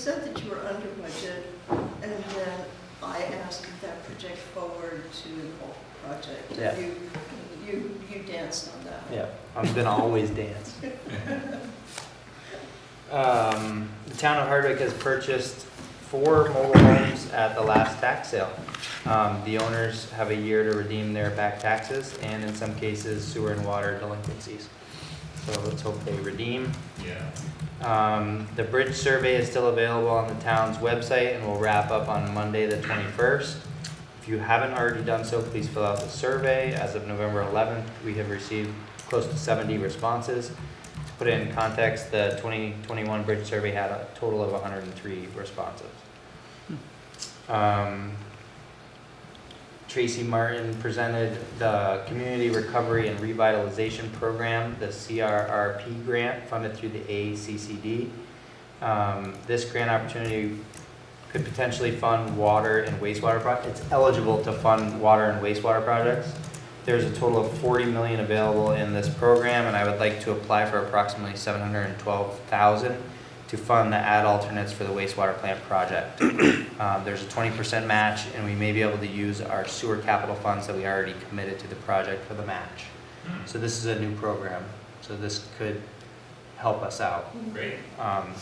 said that you were under budget, and then I asked if that project forward to the whole project. Yeah. You, you, you danced on that. Yeah, I'm gonna always dance. Um, the town of Hardwick has purchased four mobile homes at the last tax sale. Um, the owners have a year to redeem their back taxes and in some cases sewer and water delinquencies. So let's hope they redeem. Yeah. Um, the bridge survey is still available on the town's website and will wrap up on Monday, the twenty-first. If you haven't already done so, please fill out the survey. As of November eleventh, we have received close to seventy responses. To Put it in context, the twenty twenty-one bridge survey had a total of hundred and three responses. Um, Tracy Martin presented the Community Recovery and Revitalization Program, the CRRP grant funded through the ACCD. Um, This grant opportunity could potentially fund water and wastewater projects. It's eligible to fund water and wastewater projects. There's a total of 40 million available in this program, and I would like to apply for approximately 712,000 to fund the ad alternates for the wastewater plant project. Um, There's a 20% match, and we may be able to use our sewer capital funds that we already committed to the project for the match. Hmm. So this is a new program, so this could help us out. Great. Um,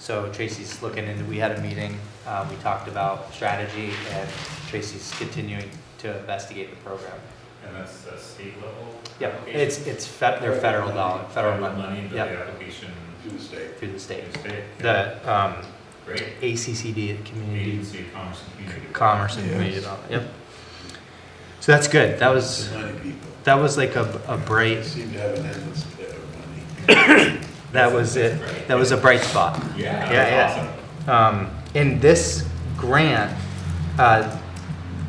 So Tracy's looking into, we had a meeting, uh, we talked about strategy, and Tracy's continuing to investigate the program. And that's a state level? Yeah, application? it's, it's, fe- they're federal dollar, federal Money, money, but the yeah, application to the state. through the state. is state. The um, Great. ACCD, the Community Agency of Commerce and Community. Commerce and Community Yes. Development, yep. So that's good, that was, It's money people. that was like a, a They bright, seem to have an endless pit of money. that was it, that was a bright spot. Yeah, Yeah, yeah. that's awesome. Um, and this grant, uh,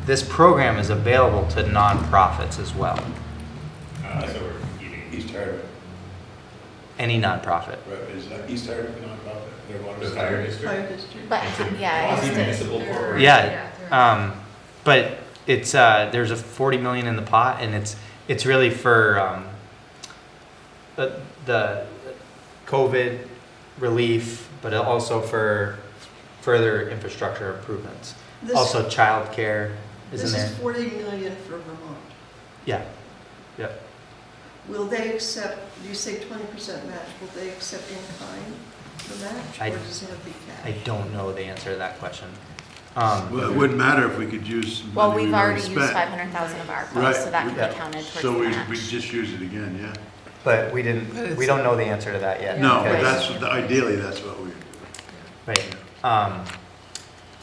this program is available to nonprofits as well, Uh, so we're competing. East Hardwick, any nonprofit. right, is that East Hardwick nonprofit? Their water The fire district? Fire district. district. But, yeah. it's Quasi-municipal the- corporation. Yeah, um, but it's, uh, there's a forty million in the pot and it's, it's really for, um, the, the COVID relief, but also for further infrastructure improvements. This- Also childcare is in This there. is forty million for Vermont. Yeah, yeah. Will they accept, you say twenty percent match, will they accept in kind the match, I- or does it have to be I cash? don't know the answer to that question. Um, Well, it wouldn't matter if we could use money Well, we've we already spent. used five hundred thousand of our Right, funds, so that we- can be counted towards the So we, we match. just use it again, yeah? But we didn't, we don't know the answer to that yet. No, Okay. but that's, ideally, that's what we would do. Right, um,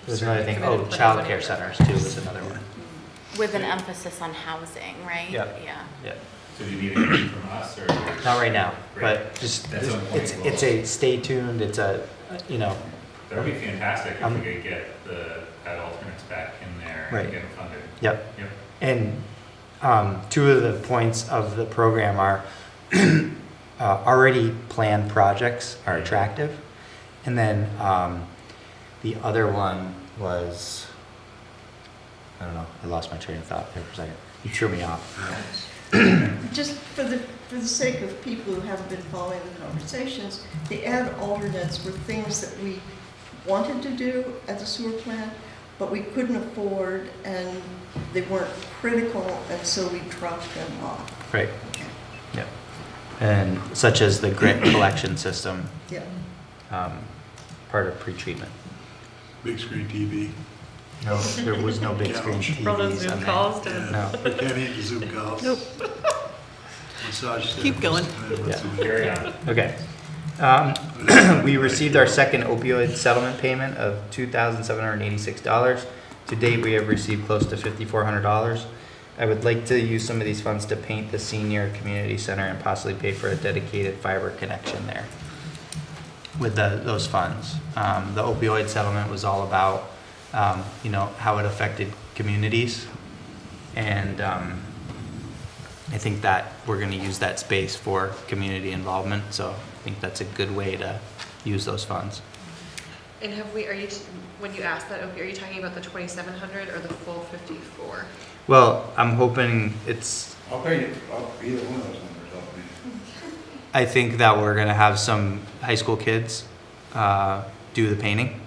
there's another thing, oh, childcare centers too is another one. With an emphasis on housing, right? Yeah. Yeah. Yeah, So do you need anything from us or? not right now, but just, That's on point. it's, it's a, stay tuned, it's a, you know, That would be fantastic if Um, we could get the, that alternates back in there Right. and get them funded. yep. Yep. And um, two of the points of the program are uh, already planned projects are attractive. And then um, the other one was, I don't know, I lost my train of thought there for a second. You threw me off. Just for the, for the sake of people who haven't been following the conversations, the ad alternates were things that we wanted to do at the sewer plant, but we couldn't afford, and they weren't critical, and so we dropped them off. Right. Yeah. And such as the grit collection system, Yeah, um, part of pretreatment. Big screen TV. No, there was no big screen Couch. TVs on Zoom that. calls Yeah, No. we can't handle Zoom calls. Nope. Massage therapist. Keep going. Carry on. Okay. Um, We received our second opioid settlement payment of $2,786. To date, we have received close to $5,400. I would like to use some of these funds to paint the senior community center and possibly pay for a dedicated fiber connection there with the, those funds. Um, The opioid settlement was all about, um, you know, how it affected communities. And um, I think that we're going to use that space for community involvement, so I think that's a good way to use those funds. And have we, are you, when you asked that, are you talking about the 2,700 or the full 54? Well, I'm hoping it's, I'll pay you, I'll, either one of those numbers, I'll pay you. I think that we're going to have some high school kids uh, do the painting?